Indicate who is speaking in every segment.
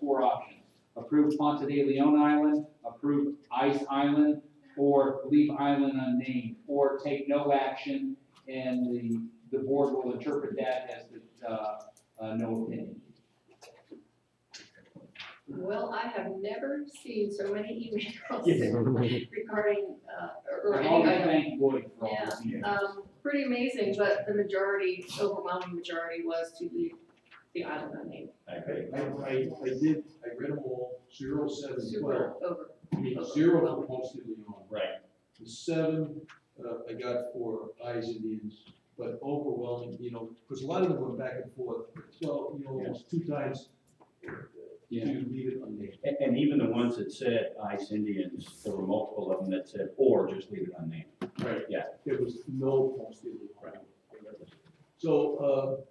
Speaker 1: four options. Approve Ponte de Leon Island, approve Ice Island, or leave island unnamed, or take no action, and the, the board will interpret that as the, uh, uh, no opinion.
Speaker 2: Well, I have never seen so many emails
Speaker 3: Yeah.
Speaker 2: regarding, uh, or
Speaker 1: I
Speaker 2: or any
Speaker 1: always
Speaker 2: item.
Speaker 1: thank Lloyd for all this.
Speaker 2: Um, pretty amazing, but the majority, overwhelming majority was to leave the island unnamed,
Speaker 4: I agree.
Speaker 5: I, I, I did, I read them all, zero, seven, twelve,
Speaker 2: super over.
Speaker 5: I mean, zero for Ponce de Leon.
Speaker 4: Right.
Speaker 5: The seven, uh, I got for eyes Indians, but overwhelming, you know, because a lot of them went back and forth, twelve, you know, almost two times. uh,
Speaker 1: Yeah.
Speaker 5: To leave it unnamed.
Speaker 4: And, and even the ones that said ICE Indians, there were multiple of them that said, or just leave it unnamed.
Speaker 5: Right.
Speaker 4: Yeah.
Speaker 5: There was no Ponce de Leon. So, uh,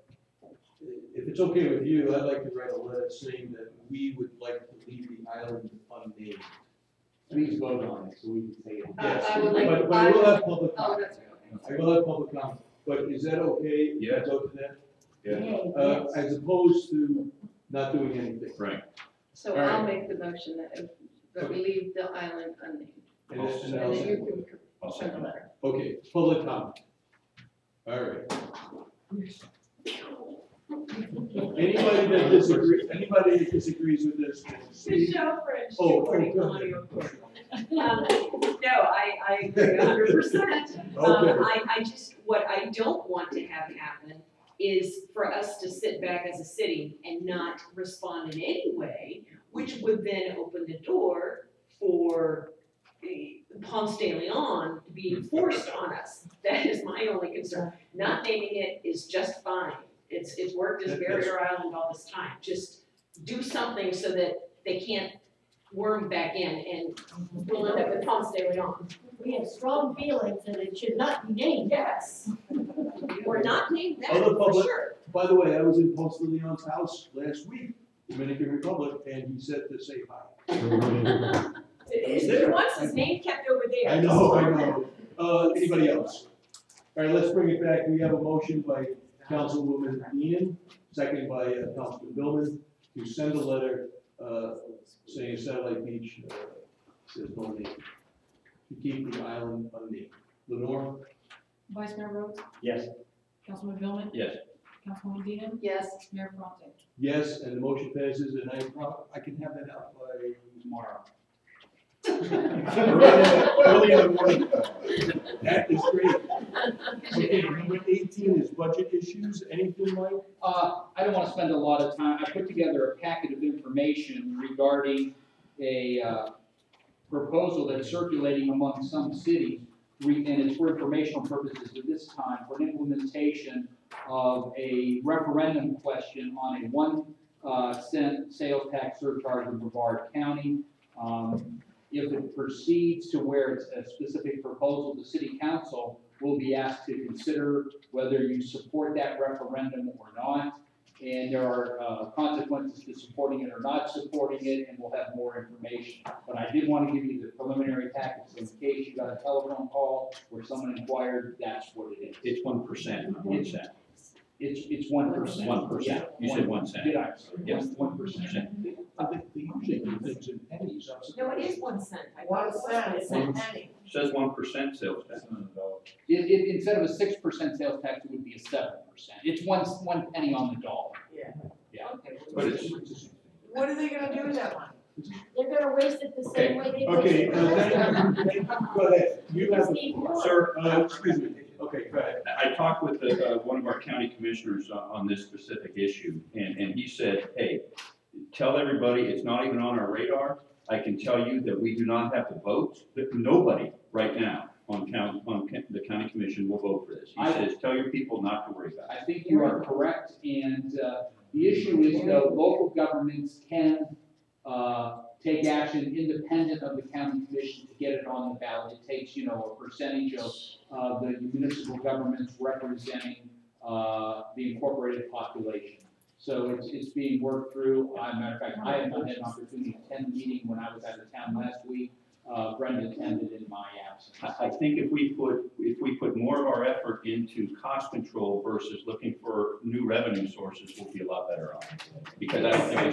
Speaker 5: if it's okay with you, I'd like to write a letter saying that we would like to leave the island unnamed.
Speaker 1: Please vote on it, so we can say it.
Speaker 2: I-
Speaker 5: Yes,
Speaker 2: Uh, I
Speaker 5: but,
Speaker 2: would like-
Speaker 5: but
Speaker 2: I
Speaker 5: I will
Speaker 2: would-
Speaker 5: have public
Speaker 2: Oh,
Speaker 5: comment.
Speaker 2: that's right, okay.
Speaker 5: I will have public comment, but is that okay? if we
Speaker 4: Yes.
Speaker 5: Go to that,
Speaker 4: Yeah.
Speaker 5: uh, as opposed to not doing anything.
Speaker 4: Right.
Speaker 2: So
Speaker 5: All right.
Speaker 2: I'll make the motion that, if- that we leave the island unnamed.
Speaker 5: And that's- and
Speaker 2: And
Speaker 5: I'll
Speaker 2: then
Speaker 5: say-
Speaker 2: you can
Speaker 4: I'll
Speaker 2: send a
Speaker 4: second that.
Speaker 2: letter.
Speaker 5: Okay, public comment. All right. Anybody that disagrees, anybody that disagrees with this, can speak.
Speaker 6: Michelle French,
Speaker 5: Oh,
Speaker 6: two forty
Speaker 5: oh, go
Speaker 6: Colonial Court. Um, No, I, I agree a hundred percent.
Speaker 5: Okay.
Speaker 6: Um, I, I just, what I don't want to have happen is for us to sit back as a city and not respond in any way, which would then open the door for the Ponce de Leon to be forced on us. That is my only concern. Not naming it is just fine. It's, it's worked as
Speaker 5: That- that's-
Speaker 6: barrier island all this time. Just do something so that they can't worm back in and we'll end up with Ponce de Leon.
Speaker 7: We have strong feelings that it should not be named.
Speaker 6: Yes. We're not named that
Speaker 5: Other
Speaker 6: for
Speaker 5: public-
Speaker 6: sure.
Speaker 5: By the way, I was in Ponce de Leon's house last week, Dominican Republic, and he said to say hi. was
Speaker 6: He
Speaker 5: there.
Speaker 6: wants his name kept over there.
Speaker 5: I know, I know. Uh, anybody else? All right, let's bring it back. We have a motion by Councilwoman Ian, second by uh, Councilman Billman, to send a letter, uh, saying Satellite Beach, uh, says no name. To keep the island unnamed. Lenore?
Speaker 8: Vice Mayor Rhodes,
Speaker 4: Yes.
Speaker 8: Councilman Billman,
Speaker 4: Yes.
Speaker 8: Councilwoman Dean,
Speaker 2: Yes,
Speaker 8: Mayor Fontaine.
Speaker 5: Yes, and the motion passes, and I, prob- I can have that out by tomorrow. Early in the morning. That is great. Okay, number eighteen is budget issues, anything, Mike?
Speaker 1: Uh, I don't wanna spend a lot of time, I put together a packet of information regarding a, uh, proposal that's circulating among some cities, re- and it's for informational purposes at this time, for an implementation of a referendum question on a one, uh, cent sales tax surcharge in Brevard County. Um, if it proceeds to where it's a specific proposal, the city council will be asked to consider whether you support that referendum or not. And there are uh, consequences to supporting it or not supporting it, and we'll have more information. But I did want to give you the preliminary package in case you got a telephone call where someone inquired, that's what it is.
Speaker 4: It's one percent, not one cent.
Speaker 1: It's, it's one percent.
Speaker 4: One percent. You said one cent.
Speaker 1: Did I?
Speaker 4: Yes.
Speaker 1: One percent.
Speaker 5: I think they usually do things in pennies, I'm
Speaker 6: No,
Speaker 5: surprised.
Speaker 6: it is one cent. I
Speaker 7: One
Speaker 6: thought
Speaker 7: cent.
Speaker 6: it was one cent.
Speaker 4: Says one percent sales tax.
Speaker 1: It, it, instead of a six percent sales tax, it would be a seven percent. It's one, one penny on the dollar.
Speaker 4: But it's,
Speaker 9: What are they gonna do with that one?
Speaker 7: They're gonna waste it the same way they
Speaker 5: Okay,
Speaker 7: wasted the
Speaker 5: uh,
Speaker 7: last time.
Speaker 5: thank you, thank you. go ahead, you have,
Speaker 7: Steve Moore.
Speaker 4: sir,
Speaker 5: uh, excuse me, okay, go ahead.
Speaker 4: I I talked with uh, uh, one of our county commissioners on- on this specific issue, and, and he said, hey, tell everybody, it's not even on our radar. I can tell you that we do not have the votes, that nobody right now on count, on ca- the county commission will vote for this. He
Speaker 1: I-
Speaker 4: says, tell your people not to worry about it.
Speaker 1: I think you are correct, and uh, the issue is though, local governments can uh, take action independent of the county commission to get it on the ballot. It takes, you know, a percentage of uh, the municipal governments representing uh, the incorporated population. So it's, it's being worked through. As a matter of fact, I have not had an opportunity to attend the meeting when I was out of town last week. Uh, Brenda attended in my absence.
Speaker 4: I, I think if we put, if we put more of our effort into cost control versus looking for new revenue sources, we'll be a lot better off. Because I don't think it's